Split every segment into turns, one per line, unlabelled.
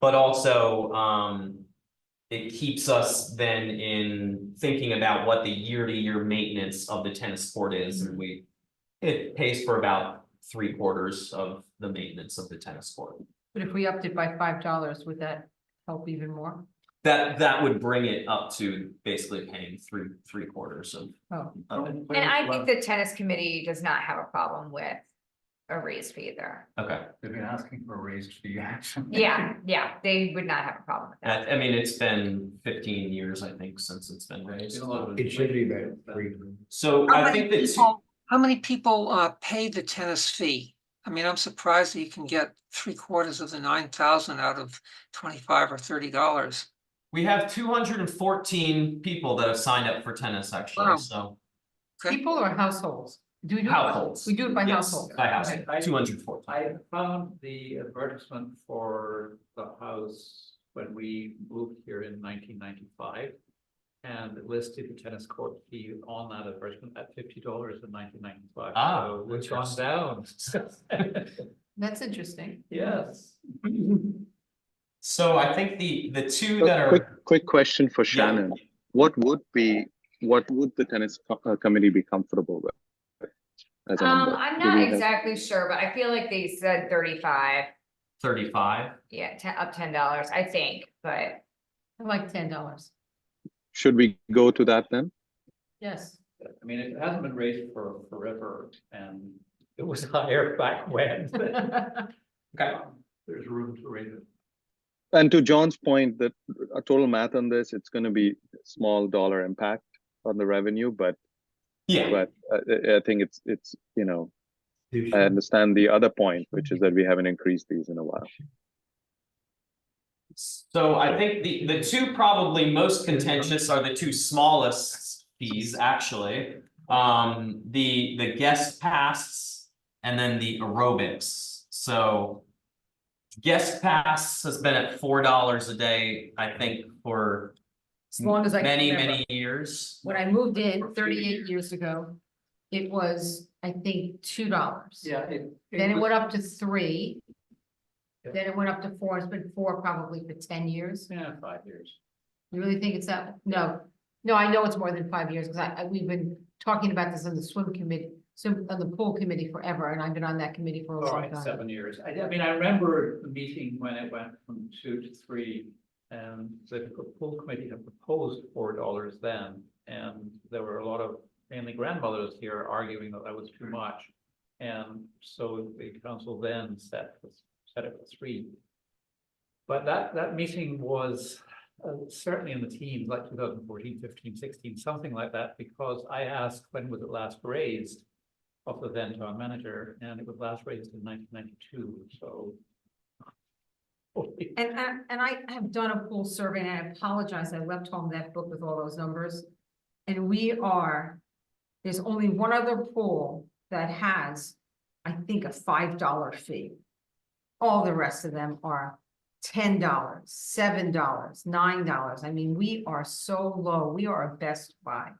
But also, um. It keeps us then in thinking about what the year-to-year maintenance of the tennis court is and we. It pays for about three quarters of the maintenance of the tennis court.
But if we upped it by five dollars, would that help even more?
That that would bring it up to basically paying three three quarters of
Oh,
of it.
And I think the tennis committee does not have a problem with a raise fee either.
Okay,
They've been asking for a raise fee action.
Yeah, yeah, they would not have a problem with that.
I I mean, it's been fifteen years, I think, since it's been raised.
It should be about three.
So
How
I
many
think that two-
people- How many people uh pay the tennis fee? I mean, I'm surprised that you can get three quarters of the nine thousand out of twenty-five or thirty dollars.
we have two hundred and fourteen people that have signed up for tennis actually,
Wow.
so.
people or households? Do we do? it by-
Households.
We do it by
Yes,
household.
By
Okay.
household, two hundred and fourteen.
I found the advertisement for the house when we moved here in nineteen ninety-five. And it listed the tennis court fee on that advertisement at fifty dollars in nineteen ninety-five.
Ah,
So it's gone down.
That's interesting.
Yes.
So I think the the two that
A Quick,
are,
quick question for Shannon. What would be, what would the tennis co- uh, committee be comfortable with? As a
Um,
number?
I'm
Do we
not
have-
exactly sure, but I feel like they said thirty-five,
thirty five,
yeah, ten, up ten dollars, I think, but.
I like ten dollars.
Should we go to that then?
Yes.
I mean, it hasn't been raised for forever and it was higher back when.
okay,
There's room to raise it.
And to John's point, that a total math on this, it's gonna be small dollar impact on the revenue, but,
yeah,
but uh, I, I think it's, it's, you know, I understand the other point, which is that we haven't increased these in a while.
so I think the the two probably most contentious are the two smallest fees, actually. Um, the the guest pass and then the aerobics, so. Guest pass has been at four dollars a day, I think, for
As long as I. can
many,
remember.
many years.
When I moved in thirty-eight years ago, it was, I think, two dollars.
Yeah, it.
Then it went up to three.
Yeah.
Then it went up to four. It's been four probably for ten years.
Yeah, five years.
You really think it's that? No, no, I know it's more than five years because I, I- we've been talking about this on the swim committee, swim, on the pool committee forever, and I've been on that committee for a
All
long
right,
time.
seven years. I, I mean, I remember the meeting when it went from two to three. And the pool committee had proposed four dollars then, and there were a lot of mainly grandmothers here arguing that that was too much. And so the council then set, set it at three. But that, that meeting was uh, certainly in the teens, like 2014, 15, 16, something like that, because I asked when was it last raised of the then town manager, and it was last raised in nineteen ninety-two, so.
And I, and I have done a pool survey and I apologize, I left home that book with all those numbers. And we are, there's only one other pool that has, I think, a five dollar fee. All the rest of them are ten dollars, seven dollars, nine dollars. I mean, we are so low, we are a best buy.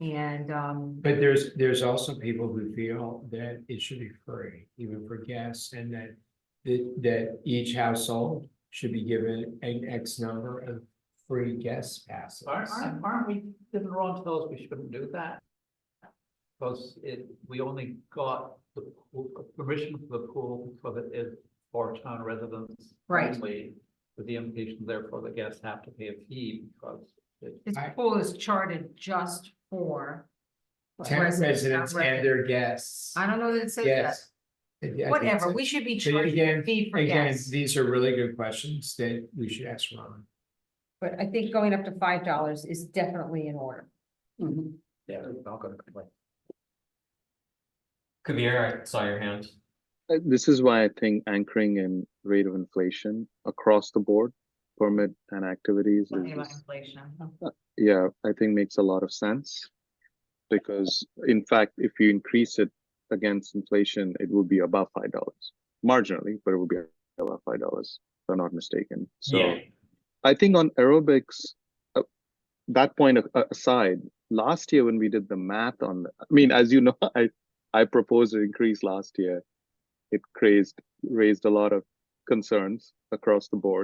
And, um,
But there's, there's also people who feel that it should be free, even for guests, and that, that, that each household should be given an X number of free guest passes.
Aren't, aren't- aren't we, didn't Ron tell us we shouldn't do that? Because it, we only got the pool- permission for the pool because it is for town residents.
Right.
only, With the implication therefore the guests have to pay a fee because it
this
I-
pool is charted just for.
Ten residents and their guests.
I don't know that it says that.
Yes. Yeah, I think
Whatever,
so.
we should be
So
charging a
again-
fee for
Again,
gas,
these are really good questions that we should ask Ron.
but I think going up to five dollars is definitely in order.
Yeah, they're not gonna complain.
Kabir, I saw your hand.
Uh, This is why I think anchoring in rate of inflation across the board, permit and activities
Something
is
about inflation.
Yeah, I think makes a lot of sense. Because in fact, if you increase it against inflation, it will be above five dollars. Marginally, but it will be above five dollars, if I'm not mistaken. So
Yeah.
I think on aerobics, uh, that point a- a- aside, last year when we did the math on, I mean, as you know, I, I proposed an increase last year. It raised, raised a lot of concerns across the board.